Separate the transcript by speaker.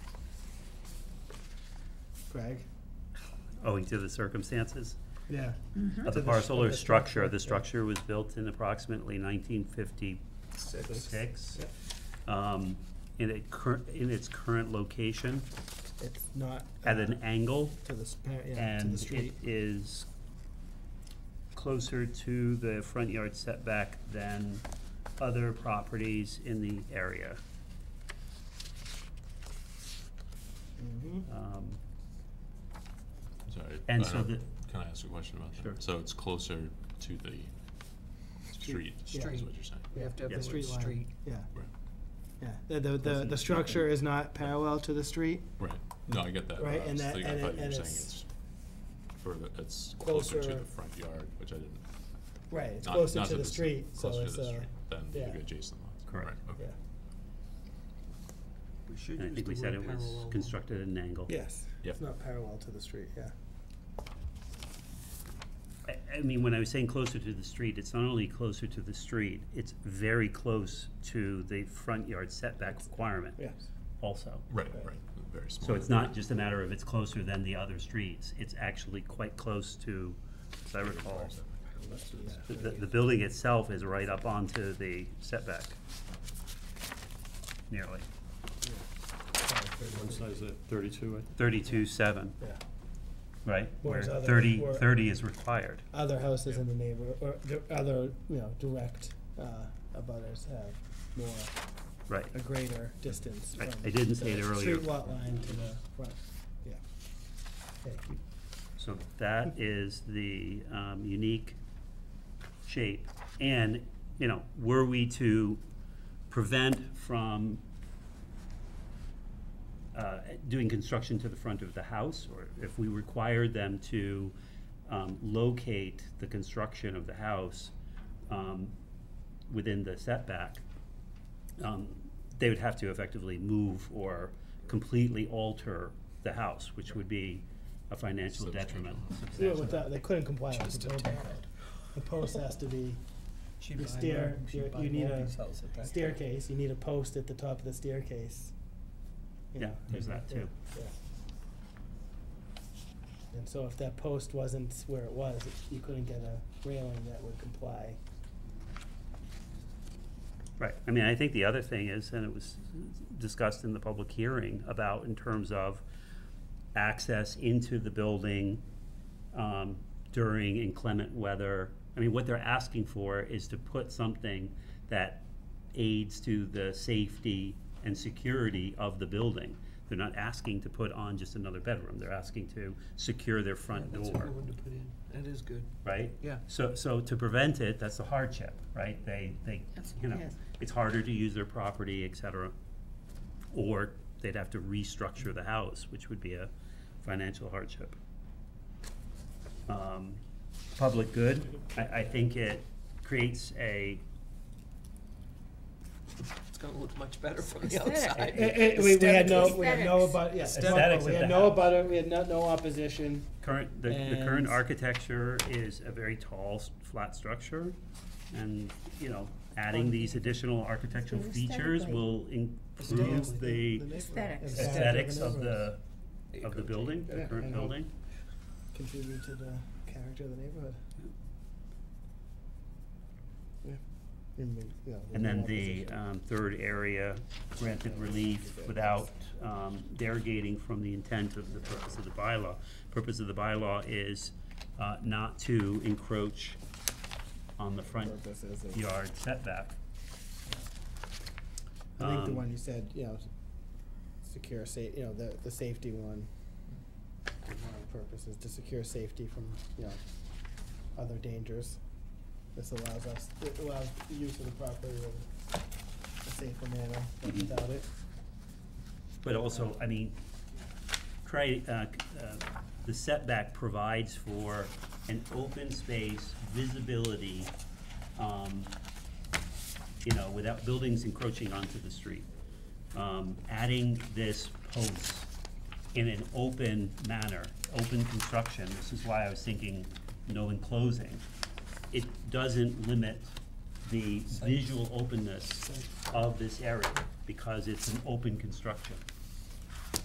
Speaker 1: Greg?
Speaker 2: owing to the circumstances
Speaker 1: Yeah.
Speaker 2: of
Speaker 1: Mm-hmm. To
Speaker 2: the
Speaker 1: the
Speaker 2: parcel
Speaker 1: stru-
Speaker 2: or
Speaker 1: of the
Speaker 2: structure. The
Speaker 1: structure,
Speaker 2: structure was built in approximately nineteen fifty-six.
Speaker 1: Yep.
Speaker 2: Um, in it cur- in its current location,
Speaker 1: It's not.
Speaker 2: at
Speaker 1: uh,
Speaker 2: an angle,
Speaker 1: To the, sp- yeah, to
Speaker 2: and
Speaker 1: the
Speaker 2: it
Speaker 1: street.
Speaker 2: is closer to the front yard setback than other properties in the area.
Speaker 1: Mhm.
Speaker 2: Um,
Speaker 3: Sorry.
Speaker 2: And
Speaker 3: I
Speaker 2: so
Speaker 3: don't-
Speaker 2: the-
Speaker 3: Can I ask a question about that?
Speaker 2: Sure.
Speaker 3: So it's closer to the street,
Speaker 1: yeah.
Speaker 3: is what you're saying?
Speaker 4: You have to have
Speaker 2: Yeah.
Speaker 4: the word
Speaker 1: line,
Speaker 4: street.
Speaker 1: Yeah,
Speaker 3: Right,
Speaker 1: yeah. The, the, the,
Speaker 2: Doesn't-
Speaker 1: the structure is not parallel to the street.
Speaker 3: right. No, I get that. but
Speaker 1: Right,
Speaker 3: I
Speaker 1: and
Speaker 3: was
Speaker 1: that-
Speaker 3: thinking-
Speaker 1: and it-
Speaker 3: I thought you were
Speaker 1: and
Speaker 3: saying
Speaker 1: it's
Speaker 3: it's further, it's closer to
Speaker 1: closer-
Speaker 3: the front yard, which I didn't.
Speaker 1: Right, it's
Speaker 3: not-
Speaker 1: closer
Speaker 3: not
Speaker 1: to
Speaker 3: that
Speaker 1: the
Speaker 3: it's
Speaker 1: street, so
Speaker 3: closer to
Speaker 1: it's,
Speaker 3: the
Speaker 1: uh,
Speaker 3: street Than
Speaker 1: yeah.
Speaker 3: the adjacent lots.
Speaker 2: Correct.
Speaker 3: Right,
Speaker 1: yeah.
Speaker 3: okay.
Speaker 4: We should
Speaker 2: And I think we said it was constructed at an angle.
Speaker 1: Yes.
Speaker 3: Yep.
Speaker 1: It's not parallel to the street, yeah.
Speaker 2: I, I mean, when I was saying closer to the street, it's not only closer to the street, it's very close to the front yard setback requirement
Speaker 1: Yes.
Speaker 2: also.
Speaker 3: Right, right, very small.
Speaker 2: So it's not just a matter of it's closer than the other streets, it's actually quite close to, as I recall, the, the the building itself is right up onto the setback. Nearly,
Speaker 5: One size at thirty-two, I
Speaker 2: thirty-two seven,
Speaker 1: Yeah.
Speaker 2: right? Where
Speaker 1: Whereas other-
Speaker 2: thirty,
Speaker 1: where-
Speaker 2: thirty is required.
Speaker 1: Other houses in the neighbor, or the other, you know, direct, uh, abutters have more,
Speaker 2: Right,
Speaker 1: a greater distance
Speaker 2: I-
Speaker 1: from.
Speaker 2: I didn't say it
Speaker 1: the
Speaker 2: earlier.
Speaker 1: Street lot line to the front, yeah. Okay.
Speaker 2: so that is the, um, unique shape. And, you know, were we to prevent from uh, doing construction to the front of the house, or if we required them to um, locate the construction of the house um, within the setback, um, they would have to effectively move or completely alter the house, which would be a financial detriment.
Speaker 1: Yeah, with that, they couldn't comply with the building. The post has to be
Speaker 4: She
Speaker 1: The
Speaker 4: buy
Speaker 1: stair-
Speaker 4: her- she
Speaker 1: you-
Speaker 4: buy
Speaker 1: you need
Speaker 4: all
Speaker 1: a
Speaker 4: these houses back there.
Speaker 1: staircase, you need a post at the top of the staircase. you
Speaker 2: Yeah,
Speaker 1: know,
Speaker 2: there's
Speaker 1: and-
Speaker 2: that too.
Speaker 1: yeah. And so if that post wasn't where it was, it- you couldn't get a railing that would comply.
Speaker 2: Right, I mean, I think the other thing is, and it was discussed in the public hearing about in terms of access into the building um, during inclement weather. I mean, what they're asking for is to put something that aids to the safety and security of the building. They're not asking to put on just another bedroom, they're asking to secure their front
Speaker 4: That's a
Speaker 2: door
Speaker 4: good one to put in. That is good.
Speaker 2: right?
Speaker 4: Yeah.
Speaker 2: So, so to prevent it, that's the hardship, right? They, they, you know,
Speaker 6: Yes.
Speaker 2: it's harder to use their property, et cetera. Or they'd have to restructure the house, which would be a financial hardship. Um, Public good, I, I think it creates a,
Speaker 4: It's gonna look much better from the
Speaker 6: Aesthetic.
Speaker 4: outside.
Speaker 6: Eh,
Speaker 1: we, had no, we had no
Speaker 6: Aesthetics.
Speaker 1: abut, yeah,
Speaker 2: Aesthetics
Speaker 1: we
Speaker 2: of
Speaker 1: had
Speaker 2: the
Speaker 1: no
Speaker 2: house.
Speaker 1: abutter, we had no, no opposition.
Speaker 2: current, the, the current
Speaker 1: And-
Speaker 2: architecture is a very tall, s- flat structure. And, you know, adding these additional architectural features
Speaker 6: Aesthetically.
Speaker 2: will improve the
Speaker 6: Aesthetics.
Speaker 2: aesthetics of the,
Speaker 4: There you
Speaker 2: of the
Speaker 4: go,
Speaker 2: building,
Speaker 4: Jane.
Speaker 2: the
Speaker 1: Yeah, I
Speaker 2: current
Speaker 1: know.
Speaker 2: building.
Speaker 1: Contribute to the character of the neighborhood. Yeah. And we- yeah, we had
Speaker 2: And then
Speaker 1: no
Speaker 2: the
Speaker 1: opposition.
Speaker 2: um, third area granted relief without um, derogating from the intent of the purpose of the bylaw. Purpose of the bylaw is uh, not to encroach on the front
Speaker 1: Purpose is it-
Speaker 2: yard setback.
Speaker 1: I think the
Speaker 2: Um,
Speaker 1: one you said, you know, secure sa- you know, the, the safety one. One of the purposes to secure safety from, you know, other dangers. This allows us, it allows the use of the property in a safer manner, but
Speaker 2: Mhm.
Speaker 1: without it.
Speaker 2: But also, I mean, try, uh, c- uh, the setback provides for an open space, visibility, um, you know, without buildings encroaching onto the street. Um, adding this post in an open manner, open construction, this is why I was thinking no enclosing. It doesn't limit the visual openness of this area because it's an open construction.